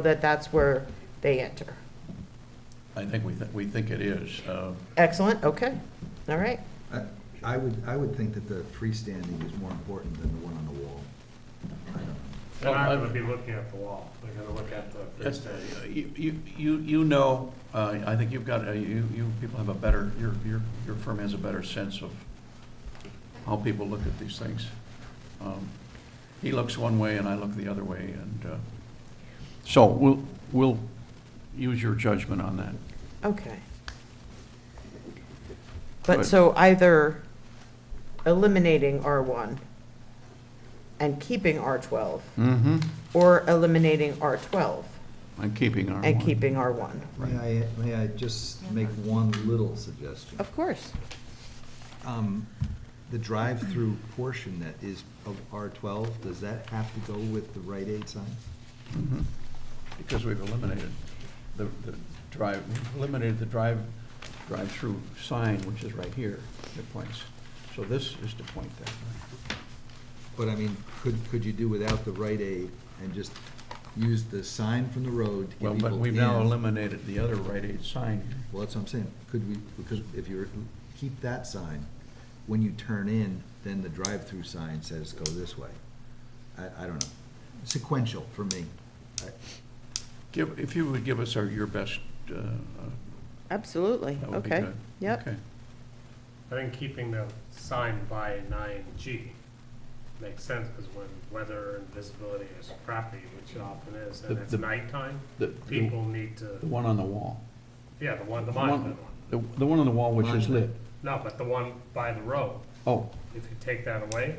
that that's where they enter. I think we, thi- we think it is. Uh, Excellent, okay, all right. I- I would, I would think that the freestanding is more important than the one on the wall. I don't- Then I would be looking at the wall, I gotta look at the that's- freestanding. You, you- you, you know, uh, I think you've got, uh, you, you people have a better, your, your, your firm has a better sense of how people look at these things. Um, He looks one way and I look the other way and, uh, so we'll, we'll use your judgment on that. Okay. Good. But so either eliminating R1 and keeping R12, Mm-hmm. or eliminating R12 And keeping our. and one. keeping R1. May I, may I just make one little suggestion? Of course. Um, The drive-through portion that is of R12, does that have to go with the Rite Aid sign? Mhm. Because we've eliminated the, the drive, we've eliminated the drive, drive-through sign, which is right here, that points. So this is to point that way. But I mean, could, could you do without the Rite Aid and just use the sign from the road to get Well, people in? but we've now eliminated the other Rite Aid sign. Well, that's what I'm saying. Could we, because if you're, keep that sign, when you turn in, then the drive-through sign says go this way. I, I don't know. Sequential for me. I- Give, if you would give us our, your best, uh, uh, Absolutely, that would be okay. good. Yep, Okay. I think keeping the sign by nine G makes sense, because when weather and visibility is crappy, which it often is, and The- it's the- nighttime, The, the people need the to, one on the wall. yeah, the one, the The one- monument one. The, the one on the wall which is lit. Monument. No, but the one by the road, Oh, if you take that away,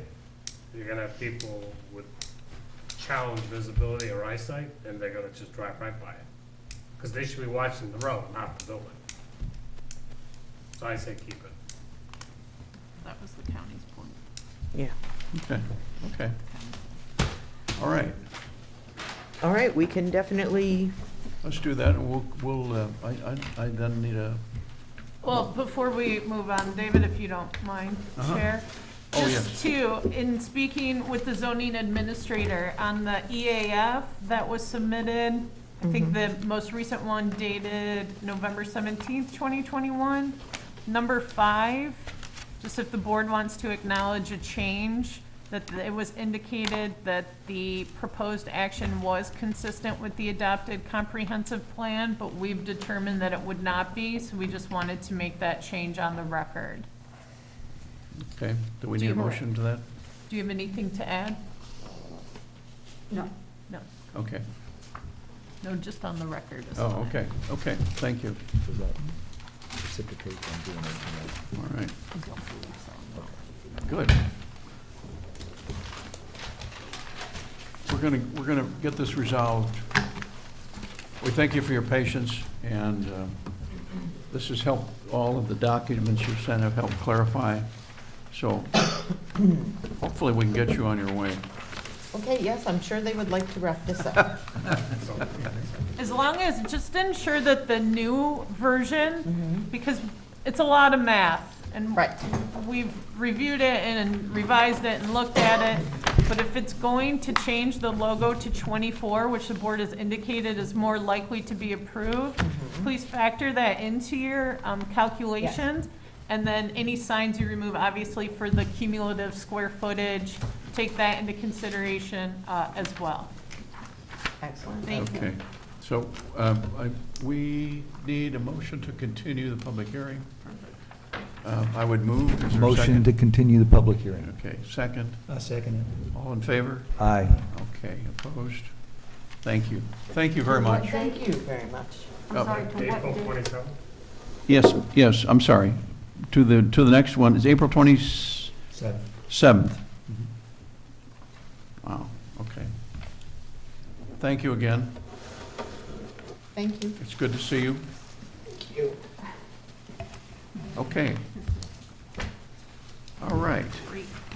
you're gonna have people with challenged visibility or eyesight, and they're gonna just drive right by it. Because they should be watching the road, not the building. So I say keep it. That was the county's point. yeah. okay, okay. All right. All right, we can definitely, Let's do that, and we'll, we'll, uh, I, I, I then need a, Well, before we move on, David, if you don't mind, Uh-huh. Chair. Oh, Just two, in speaking with the zoning administrator on the EAF that was submitted, I think the most recent one dated November seventeenth, twenty twenty-one. Number five, just if the board wants to acknowledge a change, that th- it was indicated that the proposed action was consistent with the adopted comprehensive plan, but we've determined that it would not be, so we just wanted to make that change on the record. okay, do we Do need a you- motion to that? Do you have anything to add? No. No, Okay. no, just on the record. is Oh, fine. okay, okay, thank you, Does that precipitate on doing it? all right, I don't believe so, no. good. We're gonna, we're gonna get this resolved. We thank you for your patience, and uh, this has helped, all of the documents you've sent have helped clarify, so hopefully we can get you on your way. okay, yes, I'm sure they would like to wrap this up. So, As long as, just ensure that the new version, because it's a lot of math. and Right. We've reviewed it and revised it and looked at it, but if it's going to change the logo to 24, which the board has indicated is more likely to be approved, please factor that into your um, calculations. And then any signs you remove, obviously for the cumulative square footage, take that into consideration uh, as well. Excellent. Thank you. Okay, so um, I- we need a motion to continue the public hearing. Uh, I would move. Is there a Motion second? to continue the public hearing. Okay, second, I second all in favor? Aye. Okay, opposed? Thank you. Thank you very much. Thank you very much. Oh. I'm sorry, to what April date? twenty-seventh? Yes, yes, I'm sorry. To the, to the next one, is April 27th. it. Seven. Mm-hmm. Wow, okay. Thank you again. Thank you. It's good to see you. Okay. All right,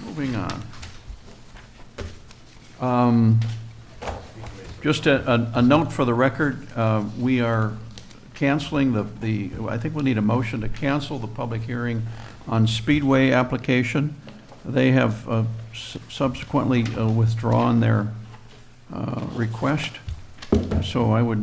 moving on. Um, Just a, a- a note for the record, uh, we are canceling the, the, I think we'll need a motion to cancel the public hearing on Speedway application. They have uh, s- subsequently uh, withdrawn their uh, request. So I would